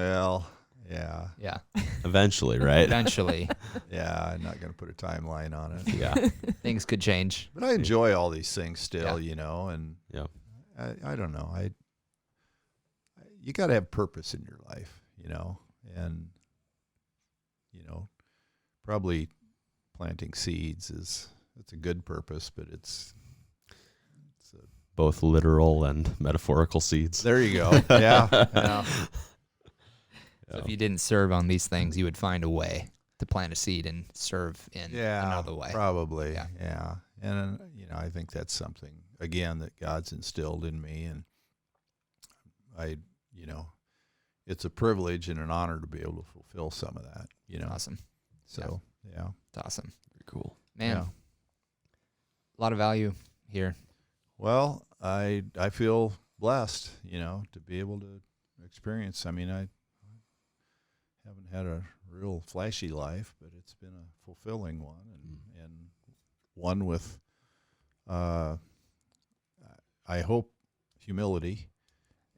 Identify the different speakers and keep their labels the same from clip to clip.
Speaker 1: Well, yeah,
Speaker 2: Yeah.
Speaker 3: Eventually, right?
Speaker 2: Eventually,
Speaker 1: yeah. I'm not going to put a timeline on it,
Speaker 3: yeah.
Speaker 2: things could change.
Speaker 1: but I enjoy all these things still, you know. And
Speaker 3: Yeah.
Speaker 1: I, I don't know. I you got to have purpose in your life, you know, and you know, probably planting seeds is it's a good purpose, but it's
Speaker 3: Both literal and metaphorical seeds.
Speaker 1: there you go. yeah, yeah.
Speaker 2: So if you didn't serve on these things, you would find a way to plant a seed and serve in
Speaker 1: yeah,
Speaker 2: another way.
Speaker 1: Probably.
Speaker 2: Yeah.
Speaker 1: Yeah. And uh, you know, I think that's something again that God's instilled in me and I you know, it's a privilege and an honor to be able to fulfill some of that, you know.
Speaker 2: Awesome.
Speaker 1: So, yeah.
Speaker 2: It's awesome.
Speaker 3: Cool.
Speaker 2: Man,
Speaker 1: Yeah.
Speaker 2: a lot of value here.
Speaker 1: Well, I I feel blessed, you know, to be able to experience. I mean, I haven't had a real flashy life, but it's been a fulfilling one, and and one with, uh, I hope, humility,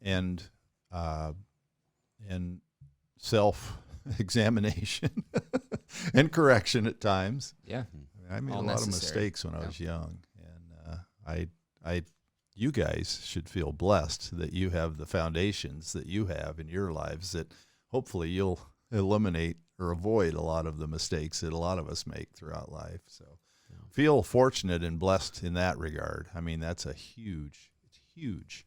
Speaker 1: and uh, and self examination and correction at times.
Speaker 2: Yeah.
Speaker 1: I made a
Speaker 2: All
Speaker 1: lot
Speaker 2: necessary.
Speaker 1: of mistakes when I
Speaker 2: Yeah.
Speaker 1: was young, and uh, I, I, you guys should feel blessed that you have the foundations that you have in your lives that hopefully you'll eliminate or avoid a lot of the mistakes that a lot of us make throughout life. So feel fortunate and blessed in that regard. I mean, that's a huge, it's huge.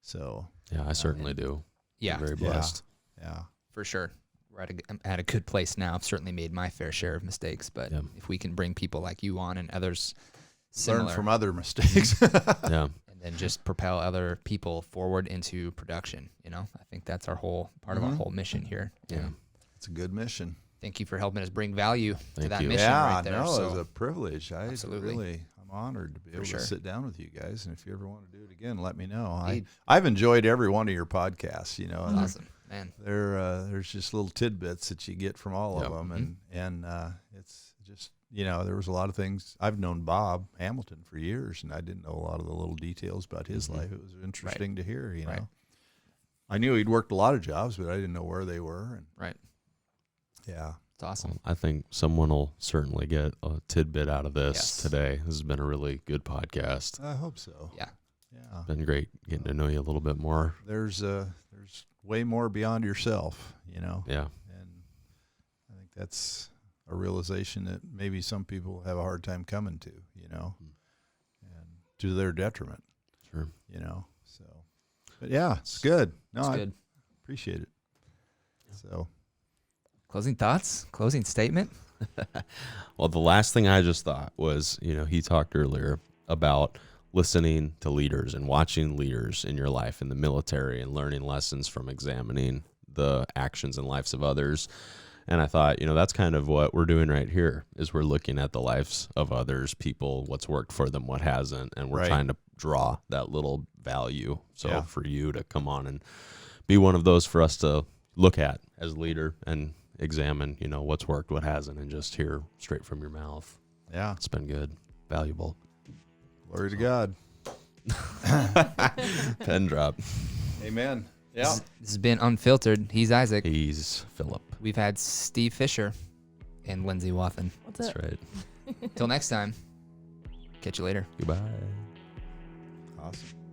Speaker 1: So
Speaker 3: Yeah, I certainly do.
Speaker 2: Yeah,
Speaker 3: I'm very
Speaker 1: Yeah.
Speaker 3: blessed.
Speaker 1: yeah,
Speaker 2: for sure. We're at a, g- I'm at a good place now. I've certainly made my fair share of mistakes, but
Speaker 3: Yeah.
Speaker 2: if we can bring people like you on and others
Speaker 1: learn
Speaker 2: similar,
Speaker 1: from other mistakes.
Speaker 3: Yeah.
Speaker 2: and then just propel other people forward into production, you know, I think that's our whole part of our
Speaker 1: Mhm.
Speaker 2: whole mission here.
Speaker 3: Yeah.
Speaker 2: And
Speaker 1: it's a good mission.
Speaker 2: Thank you for helping us bring value to
Speaker 3: Thank
Speaker 2: that
Speaker 3: you.
Speaker 2: mission
Speaker 1: yeah,
Speaker 2: right there.
Speaker 1: no,
Speaker 2: so
Speaker 1: it was a privilege. I
Speaker 2: Absolutely.
Speaker 1: really, I'm honored to be able
Speaker 2: sure.
Speaker 1: to sit down with you guys. And if you ever want to do it again, let me know. I,
Speaker 2: Indeed.
Speaker 1: I've enjoyed every one of your podcasts. You know, and they're-
Speaker 2: awesome, man.
Speaker 1: they're, uh, there's just little tidbits that you get from all of
Speaker 3: Yeah.
Speaker 1: them, and
Speaker 2: Mm-hmm.
Speaker 1: and uh, it's just you know there was a lot of things. I've known Bob Hamilton for years, and I didn't know a lot of the little details about his life. It was interesting to hear. You know,
Speaker 2: Mm-hmm. Right.
Speaker 1: I knew he'd worked a lot of jobs, but I didn't know where they were. And
Speaker 2: Right.
Speaker 1: yeah,
Speaker 2: It's awesome.
Speaker 3: Well, I think someone will certainly get a tidbit out of this
Speaker 2: Yes.
Speaker 3: today. This has been a really good podcast.
Speaker 1: I hope so.
Speaker 2: Yeah.
Speaker 1: Yeah.
Speaker 3: Been great getting to know you a little bit more.
Speaker 1: there's uh there's way more beyond yourself, you know.
Speaker 3: Yeah.
Speaker 1: And I think that's a realization that maybe some people have a hard time coming to, you know.
Speaker 3: Mm.
Speaker 1: And to their detriment,
Speaker 3: Sure.
Speaker 1: you know. So but yeah, it's good. No,
Speaker 2: It's
Speaker 1: I
Speaker 2: good.
Speaker 1: appreciate it. So
Speaker 2: Closing thoughts, closing statement.
Speaker 3: Well, the last thing I just thought was, you know, he talked earlier about listening to leaders and watching leaders in your life in the military and learning lessons from examining the actions and lives of others. And I thought, you know, that's kind of what we're doing right here is we're looking at the lives of others, people, what's worked for them, what hasn't, and we're
Speaker 1: Right.
Speaker 3: trying to draw that little value. So
Speaker 1: Yeah.
Speaker 3: for you to come on and be one of those for us to look at as a leader and examine, you know, what's worked, what hasn't, and just hear straight from your mouth.
Speaker 1: yeah,
Speaker 3: It's been good, valuable.
Speaker 1: glory to God.
Speaker 3: Pen drop.
Speaker 1: Amen. Yeah.
Speaker 2: This, this has been unfiltered. He's Isaac.
Speaker 3: He's Philip.
Speaker 2: We've had Steve Fisher and Lindsay Wathen.
Speaker 4: What's
Speaker 3: That's
Speaker 4: up?
Speaker 3: right.
Speaker 2: Till next time, catch you later.
Speaker 3: Goodbye.
Speaker 1: Awesome.